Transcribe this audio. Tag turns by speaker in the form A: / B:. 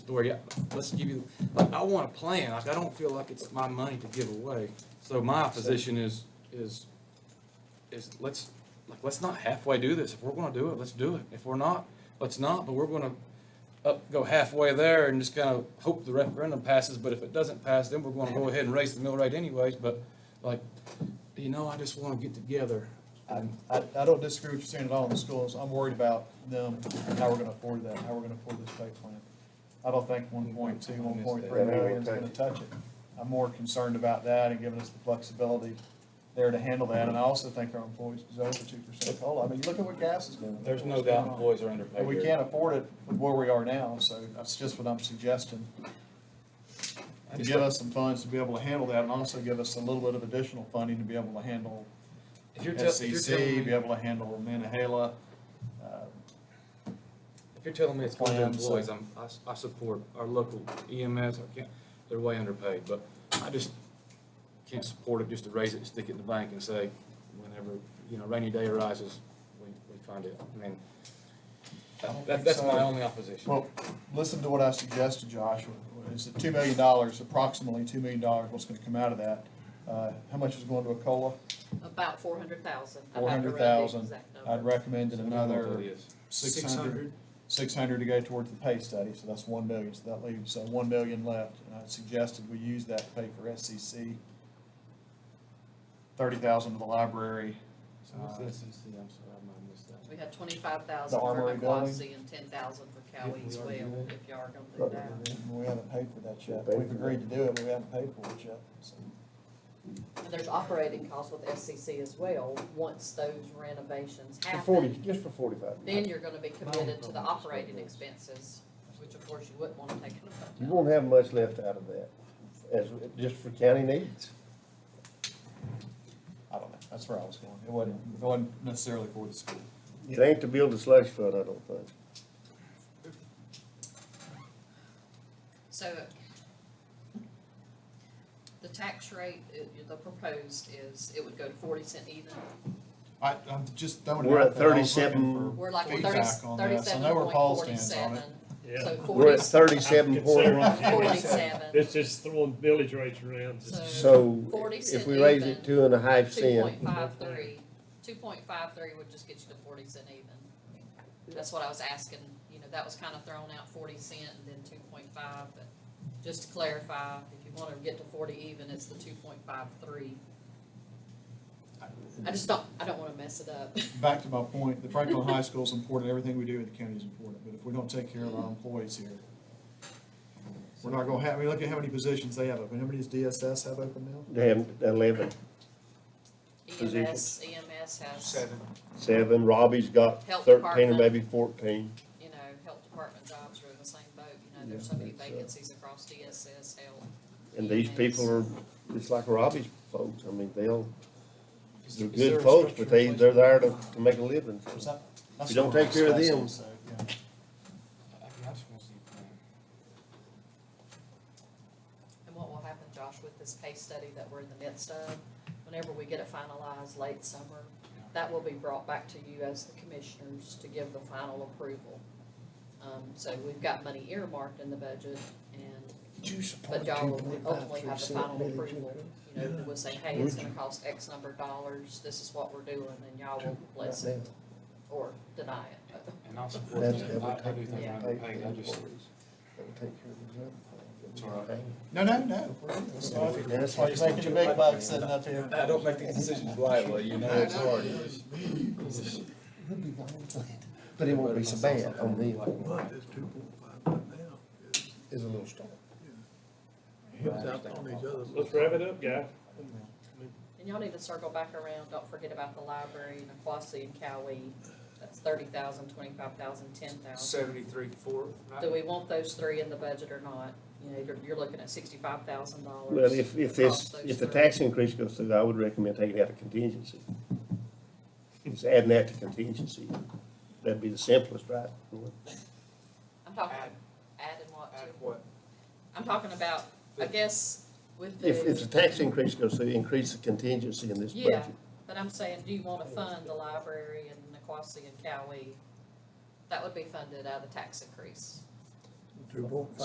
A: authority, I- let's give you, like, I want a plan, like, I don't feel like it's my money to give away. So my position is, is, is let's, like, let's not halfway do this. If we're gonna do it, let's do it. If we're not, let's not, but we're gonna up, go halfway there and just kind of hope the referendum passes, but if it doesn't pass, then we're gonna go ahead and raise the mill rate anyways, but like, you know, I just wanna get together.
B: I, I I don't disagree with you saying at all in the schools. I'm worried about them, and how we're gonna afford that, how we're gonna afford this pay plan. I don't think one point two, one point three million is gonna touch it. I'm more concerned about that and giving us the flexibility there to handle that. And I also think our employees deserve the two percent COLA. I mean, look at what gas is doing.
A: There's no doubt employees are underpaid.
B: And we
A: here.
B: can't afford it with where we are now, so that's just what I'm suggesting.
A: I
B: To
A: just-
B: give us some funds to be able to handle that and also give us a little bit of additional funding to be able to handle
A: If you're tell- if you're
B: SEC,
A: telling
B: E be
A: me-
B: able to handle Manahela. uh,
A: If you're telling me it's one of the
B: Plans, so-
A: employees, I'm, I, s- I support our local EMS, I can't, they're way underpaid, but I just can't support it just to raise it and stick it in the bank and say, whenever, you know, rainy day arises, we, we find it. I mean,
B: don't
A: that,
B: think
A: that's
B: so.
A: my only opposition.
B: Well, listen to what I suggested, Josh, is that two million dollars, approximately two million dollars, what's gonna come out of that? Uh, How much is going to a COLA?
C: About four hundred thousand.
B: Four hundred thousand. I'd recommend
A: So
B: that
A: we know what
B: another.
A: that is.
B: six hundred, six hundred to go towards the pay study, so that's one million, so that leaves, uh one million left. And I suggested we use that to pay for SEC. Thirty thousand to the library,
A: So what's the SEC? I'm sorry, I might have missed that.
C: We had twenty-five thousand
B: The
C: for
B: armory
C: McCloskey and ten thousand for
A: Yeah,
C: Cowie
A: we
C: as well,
A: already did
C: if y'all are gonna do that.
B: we haven't paid for that yet,
D: Paid
B: we've
D: for
B: agreed to do it, but we haven't paid for it yet, so.
C: And there's operating costs with SCC as well, once those renovations
D: For
C: happen.
D: forty, just for forty-five.
C: Then you're gonna be committed to the
A: problem is
C: operating
A: with this.
C: expenses, which of course you wouldn't wanna take into account.
D: You won't have much left out of that, as, just for county needs.
B: I don't know, that's where I was going, it wasn't, it wasn't necessarily for the school.
D: It ain't to build a slush fund, I don't think.
C: So the tax rate, it- the proposed is, it would go to forty cent even.
B: I, I'm just throwing it
D: We're
B: out
D: at
B: there. I was looking
D: 37.
B: for
C: We're like thirty,
B: feedback on this. I
C: thirty-seven
B: know where
C: point
B: Paul stands on
C: forty-seven.
B: it.
C: So
E: Yeah.
D: We're
C: forty,
D: at thirty-seven point,
C: forty-seven,
E: It's just throwing village rates around.
C: So-
D: so
C: Forty
D: if
C: cent
D: we raise it
C: even.
D: two and a half
C: two
D: cent,
C: point five three, two point five three would just get you to forty cent even. That's what I was asking, you know, that was kind of thrown out forty cent and then two point five, but just to clarify, if you wanna get to forty even, it's the two point five three. I just don't, I don't wanna mess it up.
B: Back to my point, the Franklin High School is important, everything we do in the county is important, but if we don't take care of our employees here, we're not gonna have, I mean, look at how many positions they have open, how many does DSS have open now?
D: damn, eleven,
C: E EMS, EMS has,
D: seven, Robbie's got
C: Health
D: thirteen or
C: department.
D: maybe fourteen.
C: you know, health department jobs are in the same boat, you know, there's so many
D: Yeah, it's, uh,
C: vacancies across DSS, health.
D: And these
C: EMS.
D: people are, it's like Robbie's folks, I mean, they'll,
A: Is
D: they're
A: there- is there
D: good
A: a
D: folks,
A: structure in
D: but they,
A: place?
D: they're there to, to make a living.
B: Is that- that's
D: You don't
B: what
D: take care of
B: I'm saying,
D: them.
B: so, yeah.
A: I mean, I just wanna see a plan.
C: And what will happen, Josh, with this pay study that we're in the midst of, whenever we get it finalized late summer, that will be brought back to you as the commissioners to give the final approval. Um, so we've got money earmarked in the budget and, but y'all will ultimately have the final approval. You know, we'll say, hey, it's gonna cost X number of dollars, this is what we're doing, and y'all will bless it or deny it.
A: And I'll support
D: That's-
A: that. I, I do think
C: Yeah.
A: I'm underpaid, I just,
B: No, no, no. we're good. That's why- That's why you're making your big bucks sitting up here.
A: I don't make these decisions lightly, you know, it's hard. It's-
D: But it won't be so bad on them,
F: But this two point five right now is,
D: it's a little storm.
F: it's out on these other.
E: Let's wrap it up, guy.
C: And y'all need to circle back around, don't forget about the library and Aquasi and Cowee, that's thirty thousand, twenty-five thousand, ten thousand.
G: Seventy-three, four, right?
C: Do we want those three in the budget or not? You know, you're, you're looking at sixty-five thousand dollars.
D: Well, if, if this, if the tax increase goes through, I would recommend taking out a contingency. Just adding that to contingency. That'd be the simplest, right?
C: I'm talking,
G: Add-
C: adding what
G: At
C: to,
G: what?
C: I'm talking about, I guess, with the.
D: If, if the tax increase goes through, increase the contingency in this
C: Yeah,
D: budget.
C: but I'm saying, do you wanna fund the library and Niquosi and Cowee? That would be funded out of the tax increase.
F: Two point five.